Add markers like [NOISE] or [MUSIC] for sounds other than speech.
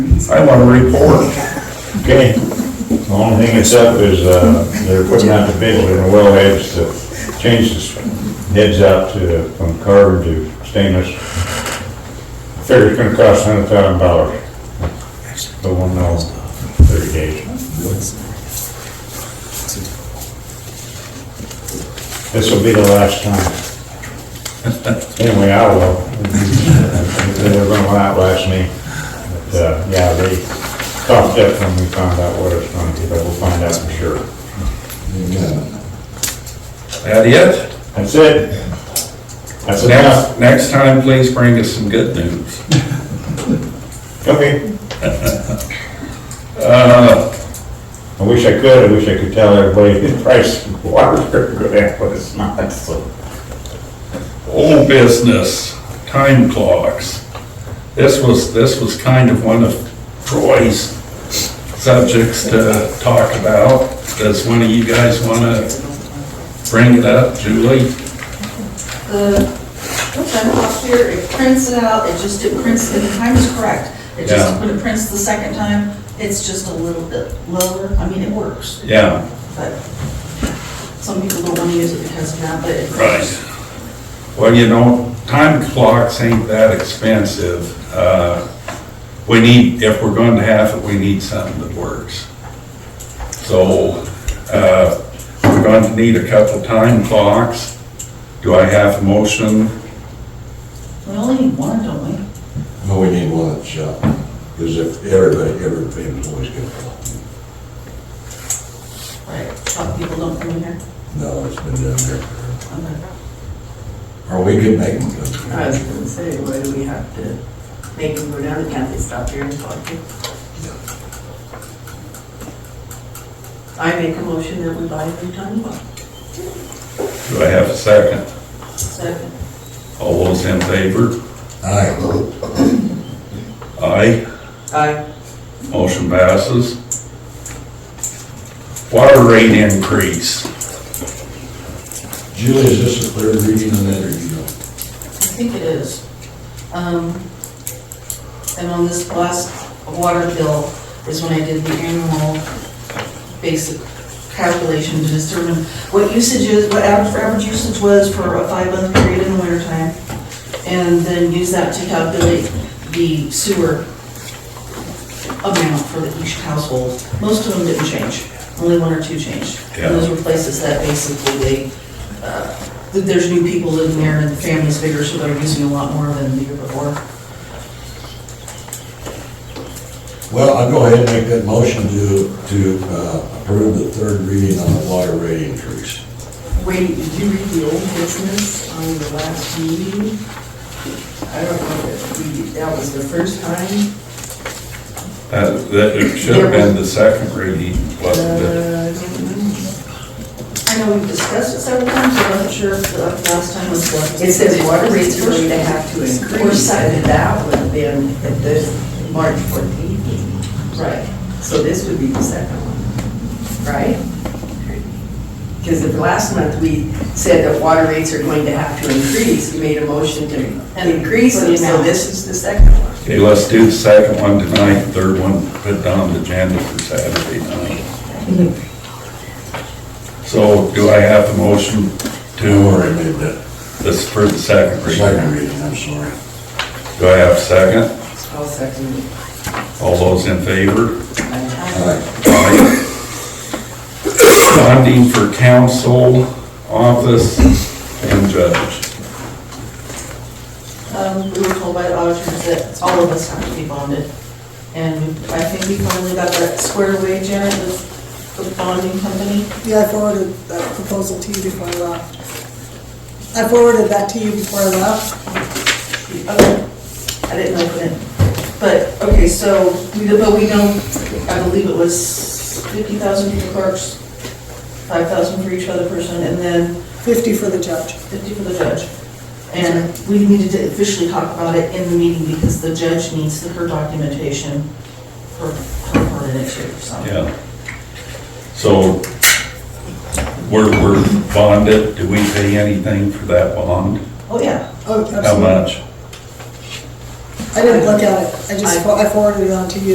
I want to report. Okay. The only thing that's up is, uh, they're putting out the bid in the wellheads to change the heads out to, from carbon to stainless. Figure it's gonna cost hundred thousand dollars. But we'll know in thirty days. This will be the last time. Anyway, I will. They were gonna outlast me. But, uh, yeah, they coughed up when we found out what it's gonna be, but we'll find out for sure. That it? That's it. That's enough. Next, next time, please bring us some good news. Okay. [LAUGHS] Uh, I wish I could, I wish I could tell everybody [LAUGHS] the price of [LAUGHS] water's gonna go down, but it's not, so. old business, time clocks. This was, this was kind of one of Troy's subjects to talk about. Does one of you guys want to bring it up, Julie? The, what's that Uh, last year, it prints it out, it just, it prints, and the time is correct. It Yeah. just, when it prints the second time, it's just a little bit lower, I mean, it works, Yeah, but some people don't wanna use it because of that, but it. right. Well, you know, time clocks ain't that expensive. Uh, We need, if we're going to have it, we need something that works. So, uh, we're going to need a couple time clocks. Do I have a motion? We only need one, don't we? No, we need one at the shop, because if everybody, every employee's gonna go. Right, some people don't come in here. No, it's been down there. I'm like, Or we could make them go. I was gonna say, why do we have to make them go down, can't they stop here and talk to? you? I make a motion that we buy a new time clock. Do I have a second? Second. All those in favor? Aye. Aye. Uh, Aye. Motion passes. Water rate increase. Julie, is this a third reading on that, or you know? I think it is. Um, And on this last water bill is when I did the annual basic calculation to determine what usage is, what average, average usage was for a five-month period in the wintertime, and then use that to calculate the sewer amount for each household. Most of them didn't change, only one or two changed. And those were places that basically they, uh, that there's new people living there and the family's bigger, so they're using a lot more than the year before. Well, I'll go ahead and make that motion to, to uh, approve the third reading on the water rate increase. Wait, did you read the old business on the last meeting? I don't know if we, that was the first time. That, that it should have been the second reading, wasn't it? Uh, I don't I know. know we've discussed it several times, but I'm not sure if the last time was what. It says water rates are going to have to Or increase, and second, that would have been at this March 14th meeting. right. So this would be the second one, right? Because if last month we said that water rates are going to have to increase, we made a motion to increase them, so this is the second one. Okay, let's do the second one tonight, third one, put it on the agenda for Saturday night. So do I have a motion Don't to, worry, I made that this is for the second reading? second reading, I'm sorry. Do I have a second? I'll second it. All those in favor? Aye. Aye. Funding for council, office, and judge. Um, we were told by the auditors that all of us have to be bonded. And I think we finally got that squared away, Janet, with the bonding company. Yeah, I forwarded that proposal to you before I left. I forwarded that to you before I left. Okay, I didn't open it. But, okay, so, we but we know, I believe it was fifty thousand for the clerks, five thousand for each other person, and then 50 for the judge. fifty for the judge. And we needed to officially talk about it in the meeting because the judge needs her documentation for her part in it too, so. Yeah. So we're, we're bonded. Do we pay anything for that bond? Oh, yeah. Oh, How absolutely. much? I didn't look at it. I just, fo- I forwarded it on to you.